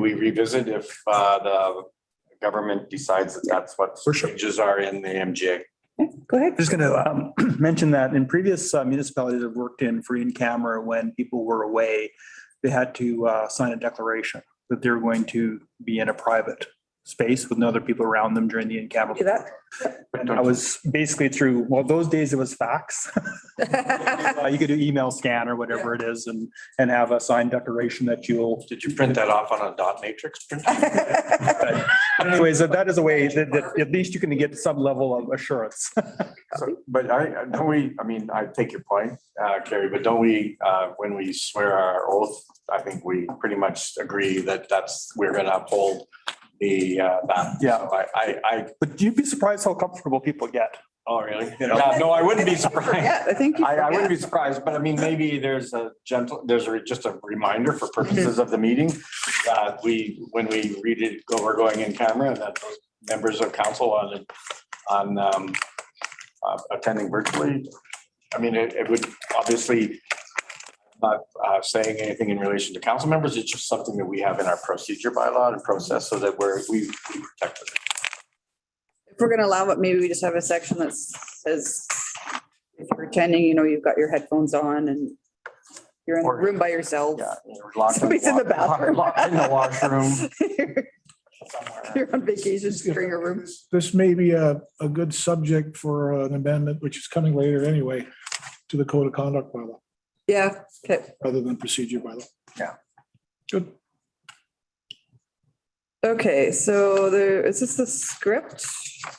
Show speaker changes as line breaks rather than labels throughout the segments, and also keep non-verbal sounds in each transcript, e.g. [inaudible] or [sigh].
we revisit if uh, the government decides that that's what
For sure.
changes are in the MGA.
Okay, Go ahead.
I'm just going to [clears throat] mention that in previous uh, municipalities I've worked in for in-camera, when people were away, they had to uh, sign a declaration that they're going to be in a private space with no other people around them during the in-camera.
Do that.
And I was basically through, well, those days it was fax. [laughs] Uh, You could do email scan or whatever it is and, and have a signed declaration that you'll.
Did you print that off on a dot matrix printer?
but Anyways, that that is a way that, that at least you can get some level of assurance.
[laughs]
[laughs]
So, But I, I- don't we, I mean, I take your point, uh, Carrie, but don't we, uh, when we swear our oath, I think we pretty much agree that that's, we're gonna uphold the, uh, that.
Yeah.
So I, I, I,
But you'd be surprised how comfortable people get.
oh, really?
You know?
Yeah, no, I wouldn't be surprised.
Yeah, I think. you
I, I wouldn't
forget.
be surprised, but I mean, maybe there's a gentle, there's a- just a reminder for purposes of the meeting. That we, when we read it, go, we're going in camera, that those members of council on, on um, uh, attending virtually. I mean, it, it would obviously not uh, saying anything in relation to council members. It's just something that we have in our procedure bylaw and process so that we're, we we protect it.
If we're gonna allow it, maybe we just have a section that says, if you're attending, you know, you've got your headphones on and you're in the
Or-
room by yourself.
Yeah. we're locked in
Somebody's in the
wa-
bathroom.
Locked in the washroom somewhere.
[laughs] You're on vacation, just in your room.
This may be a, a good subject for uh, an amendment, which is coming later anyway, to the code of conduct bylaw,
Yeah, okay.
rather than procedure bylaw.
Yeah.
Good.
Okay, so there, is this the script?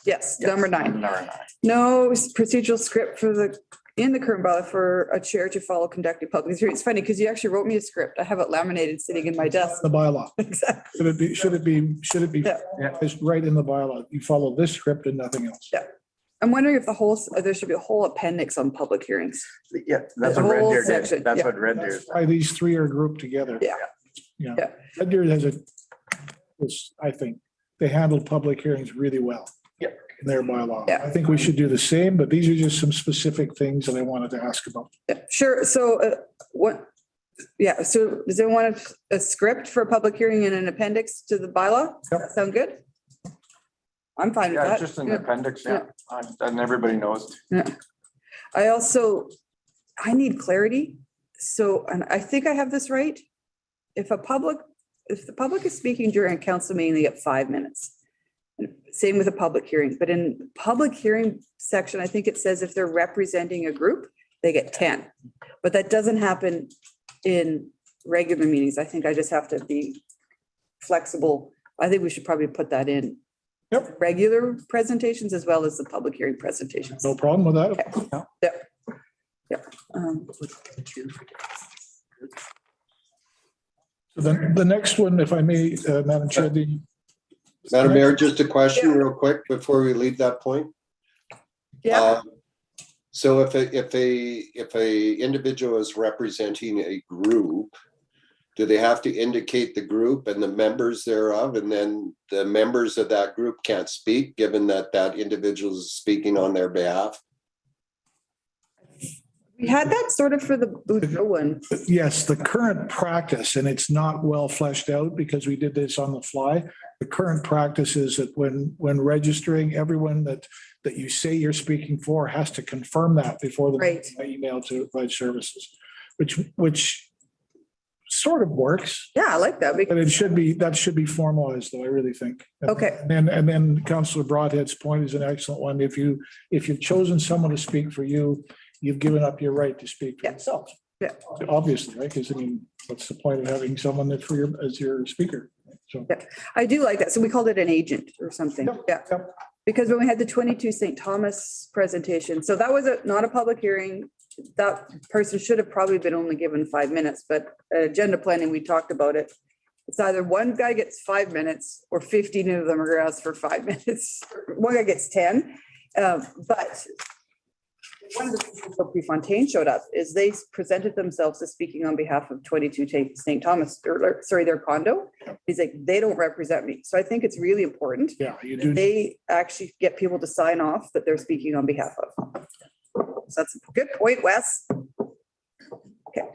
Yes, number nine.
Number nine.
No procedural script for the, in the current bylaw for a chair to follow conducting public hearings. It's funny because you actually wrote me a script. I have it laminated sitting in my desk. [laughs]
The bylaw.
Exactly.
Should it be, should it be, should it be
Yeah.
it's right in the bylaw? You follow this script and nothing else.
I'm wondering if the whole, there should be a whole appendix on public hearings.
Yeah, that's
The
what Red
whole
Deer
section,
did. That's
yeah.
what Red Deer.
That's Why these three are grouped together.
Yeah.
Yeah.
Yeah.
Red Deer has a, this, I think, they handle public hearings really well.
Yeah.
In their bylaw.
Yeah.
I think we should do the same, but these are just some specific things that I wanted to ask about.
Yeah, Sure, so uh, what, yeah, so does anyone want a script for a public hearing and an appendix to the bylaw? Does that Sound good? I'm fine with
Yeah,
that.
just an
Yeah.
appendix,
yeah.
yeah. And everybody knows.
I also, I need clarity. So, and I think I have this right. If a public, if the public is speaking during a council meeting, they get five minutes. Same with a public hearing, but in public hearing section, I think it says if they're representing a group, they get ten. But that doesn't happen in regular meetings. I think I just have to be flexible. I think we should probably put that in.
Yep.
Regular presentations as well as the public hearing presentations.
No problem with that.
Um,
The, the next one, if I may, uh, Madam Chair, the.
Madam Mayor, just a question
Yeah.
real quick before we leave that point.
Yeah,
Um, So if a, if a, if a individual is representing a group, do they have to indicate the group and the members thereof? And then the members of that group can't speak, given that that individual is speaking on their behalf?
we had that sort of for the Boudreaux one.
Yes, the current practice, and it's not well fleshed out because we did this on the fly. The current practice is that when, when registering, everyone that, that you say you're speaking for has to confirm that before the
Right.
by email to provide services, which, which sort of works,
Yeah, I like that.
but
because-
it should be, that should be formalized though, I really think.
Okay,
And then, and then Counselor Broadhead's point is an excellent one. If you, if you've chosen someone to speak for you, you've given up your right to speak for
Yeah.
yourself.
Yeah.
Obviously, right? Because I mean, what's the point of having someone that for your, as your speaker? So,
I do like that. So we called it an agent or something.
Yep,
Yeah.
yep.
Because when we had the twenty-two St. Thomas presentation, so that was a, not a public hearing. That person should have probably been only given five minutes, but at agenda planning, we talked about it. It's either one guy gets five minutes or fifteen of them are asked for five [laughs] minutes. One guy gets ten, um, but one of the reasons that Prefontaine showed up is they presented themselves as speaking on behalf of twenty-two Ta- St. Thomas, or- or, sorry, their condo. He's like, they don't represent me. So I think it's really important.
yeah, you
that
do,
They actually get people to sign off that they're speaking on behalf of. So that's a good point, Wes. Okay.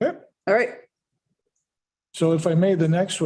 Yep.
All right.
so if I may, the next one.